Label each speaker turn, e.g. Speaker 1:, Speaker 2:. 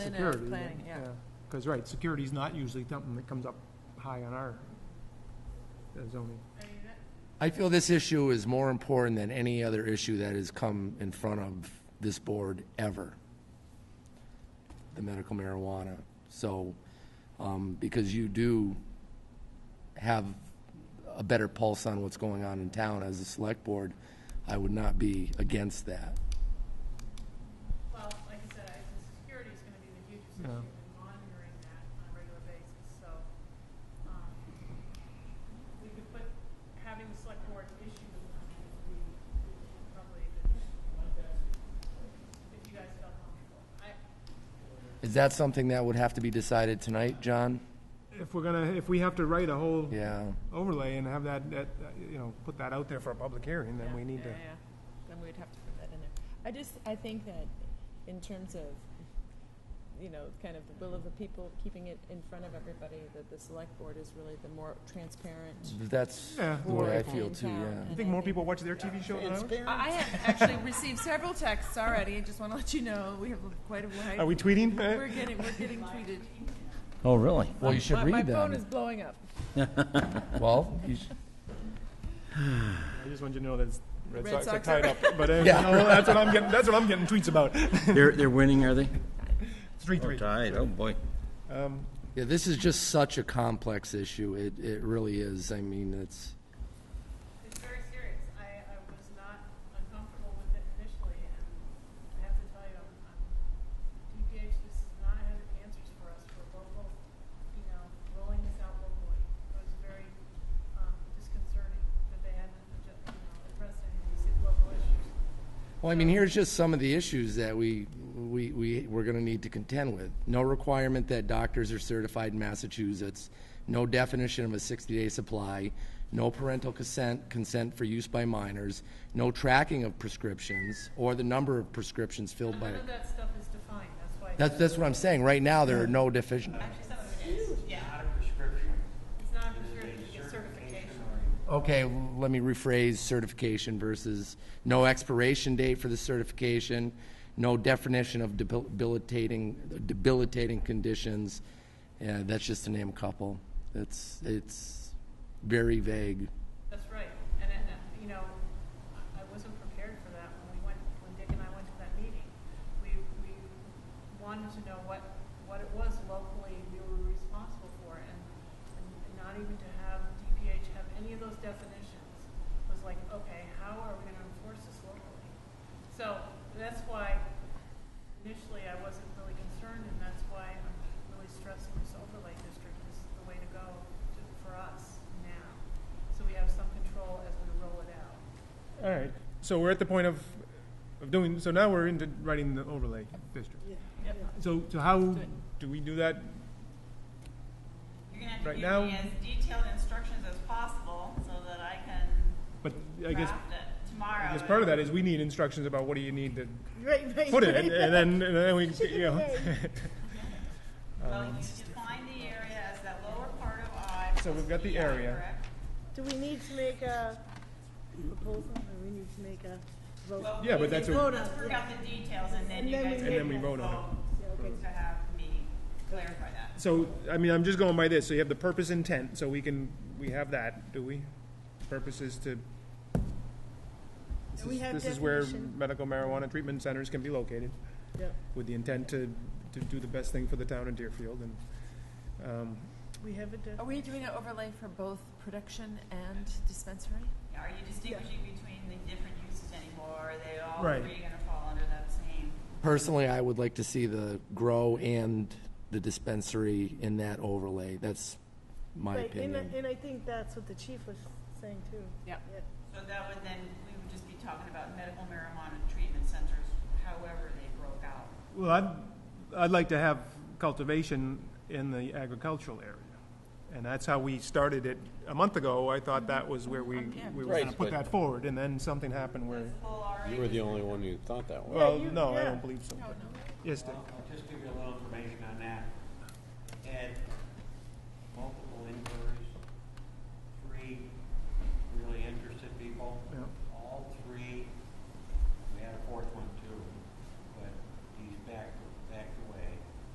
Speaker 1: And, uh,
Speaker 2: Security,
Speaker 1: planning, yeah.
Speaker 2: Because, right, security's not usually something that comes up high on our uh, zoning.
Speaker 3: I feel this issue is more important than any other issue that has come in front of this board ever. The medical marijuana. So, um, because you do have a better pulse on what's going on in town as a select board, I would not be against that.
Speaker 4: Well, like I said, I, the security is gonna be the hugest issue
Speaker 2: Yeah.
Speaker 4: and monitoring that on a regular basis, so, um, we could put, having the select board issue the warrant would be probably a good, if you guys felt comfortable. I,
Speaker 3: Is that something that would have to be decided tonight, John?
Speaker 2: If we're gonna, if we have to write a whole
Speaker 3: Yeah.
Speaker 2: overlay and have that, that, uh, you know, put that out there for a public hearing, then
Speaker 1: Yeah,
Speaker 2: we need
Speaker 1: yeah,
Speaker 2: to.
Speaker 1: yeah. Then we'd have to put that in there. I just, I think that in terms of, you know, kind of the will of the people, keeping it in front of everybody, that the select board is really the more transparent.
Speaker 3: That's
Speaker 2: Yeah.
Speaker 3: the way I
Speaker 1: board
Speaker 3: feel
Speaker 1: in
Speaker 3: too,
Speaker 1: town,
Speaker 3: yeah.
Speaker 2: You
Speaker 1: and
Speaker 2: think more people watch their TV show than ours?
Speaker 1: I I have actually received several texts already, I just want to let you know, we have quite a wide.
Speaker 2: Are we tweeting? Uh,
Speaker 1: We're getting, we're getting tweeted.
Speaker 5: Oh, really?
Speaker 3: Well, you should
Speaker 1: My-
Speaker 3: read
Speaker 1: My phone
Speaker 3: them.
Speaker 1: is blowing up.
Speaker 3: Well, you should.
Speaker 2: I just want you to know that it's- Red
Speaker 1: Red
Speaker 2: Sox are
Speaker 1: Sox
Speaker 2: tied
Speaker 1: are-
Speaker 2: up, but uh,
Speaker 3: Yeah.
Speaker 2: no, that's what I'm getting, that's what I'm getting tweets about.
Speaker 5: They're, they're winning, are they?
Speaker 2: Three, three.
Speaker 5: tied, oh, boy.
Speaker 2: Um,
Speaker 3: Yeah, this is just such a complex issue. It, it really is. I mean, it's,
Speaker 4: It's very serious. I, I was not uncomfortable with it initially, and I have to tell you, I'm, I'm, DPH does not have answers for us for local, you know, rolling this out locally. It was very, um, disconcerting that they hadn't, adju- you know, addressed any of these local issues.
Speaker 3: well, I mean, here's just some of the issues that we, we, we, we're gonna need to contend with. No requirement that doctors are certified in Massachusetts, no definition of a sixty-day supply, no parental consent, consent for use by minors, no tracking of prescriptions or the number of prescriptions filled by.
Speaker 4: None of that stuff is defined, that's why.
Speaker 3: That's, that's what I'm saying. Right now, there are no deficient.
Speaker 4: Actually, some of it is, yeah.
Speaker 6: Not a prescription.
Speaker 4: It's not a prescription, it's certification.
Speaker 3: Okay, l- let me rephrase certification versus no expiration date for the certification, no definition of debilitating, debilitating conditions. Yeah, that's just to name a couple. It's, it's very vague.
Speaker 4: That's right, and, and, uh, you know, I- I wasn't prepared for that when we went, when Dick and I went to that meeting. We, we wanted to know what, what it was locally we were responsible for, and, and not even to have DPH have any of those definitions was like, okay, how are we gonna enforce this locally? So, that's why initially I wasn't really concerned, and that's why I'm really stressing this overlay district is the way to go to, for us now. So we have some control as we roll it out.
Speaker 2: all right, so we're at the point of, of doing, so now we're into writing the overlay district.
Speaker 4: Yep.
Speaker 2: So, so how
Speaker 1: it.
Speaker 2: do we do that?
Speaker 7: You're gonna have to
Speaker 2: Right
Speaker 7: give
Speaker 2: now-
Speaker 7: me as detailed instructions as possible so that I can
Speaker 2: But I guess,
Speaker 7: draft it tomorrow.
Speaker 2: I guess part of that is we need instructions about what do you need to
Speaker 1: Right, right,
Speaker 2: put it,
Speaker 1: right.
Speaker 2: and and then, and then we, you know.
Speaker 7: Well, you define the area as that lower part of I.
Speaker 2: um, So we've got the
Speaker 7: plus EI,
Speaker 2: area.
Speaker 7: correct?
Speaker 8: Do we need to make a proposal, or we need to make a vote?
Speaker 7: Well,
Speaker 2: Yeah, but
Speaker 7: we
Speaker 2: that's
Speaker 7: can
Speaker 2: what-
Speaker 7: Let's work out the details and then
Speaker 8: And
Speaker 7: you
Speaker 8: then we
Speaker 7: guys.
Speaker 8: And
Speaker 2: then we vote on
Speaker 7: it. To have me clarify that.
Speaker 2: So, I mean, I'm just going by this, so you have the purpose intent, so we can, we have that, do we? Purpose is to. This
Speaker 8: We
Speaker 2: is-
Speaker 8: have
Speaker 2: This is where
Speaker 8: definition.
Speaker 2: medical marijuana treatment centers can be located,
Speaker 8: Yep.
Speaker 2: with the intent to, to do the best thing for the town in Deerfield, and, um,
Speaker 8: We have a, de-
Speaker 1: Are we doing an overlay for both production and dispensary?
Speaker 7: Are you distinguishing between the different uses anymore? Are they all
Speaker 2: Right.
Speaker 7: three gonna fall under that same?
Speaker 3: Personally, I would like to see the grow and the dispensary in that overlay. That's my
Speaker 8: right, and,
Speaker 3: opinion.
Speaker 8: I- and I think that's what the chief was saying too.
Speaker 1: Yeah.
Speaker 7: So that would then, we would just be talking about medical marijuana treatment centers, however they broke out.
Speaker 2: well, I'd, I'd like to have cultivation in the agricultural area. And that's how we started it a month ago, I thought that was where we, we were gonna
Speaker 9: Right,
Speaker 2: put
Speaker 9: but-
Speaker 2: that forward, and then something happened where.
Speaker 7: That's the whole RA
Speaker 9: You were the only one who thought that way.
Speaker 2: Well,
Speaker 8: you-
Speaker 2: no, I
Speaker 8: yeah.
Speaker 2: don't believe so. Yes, Dick.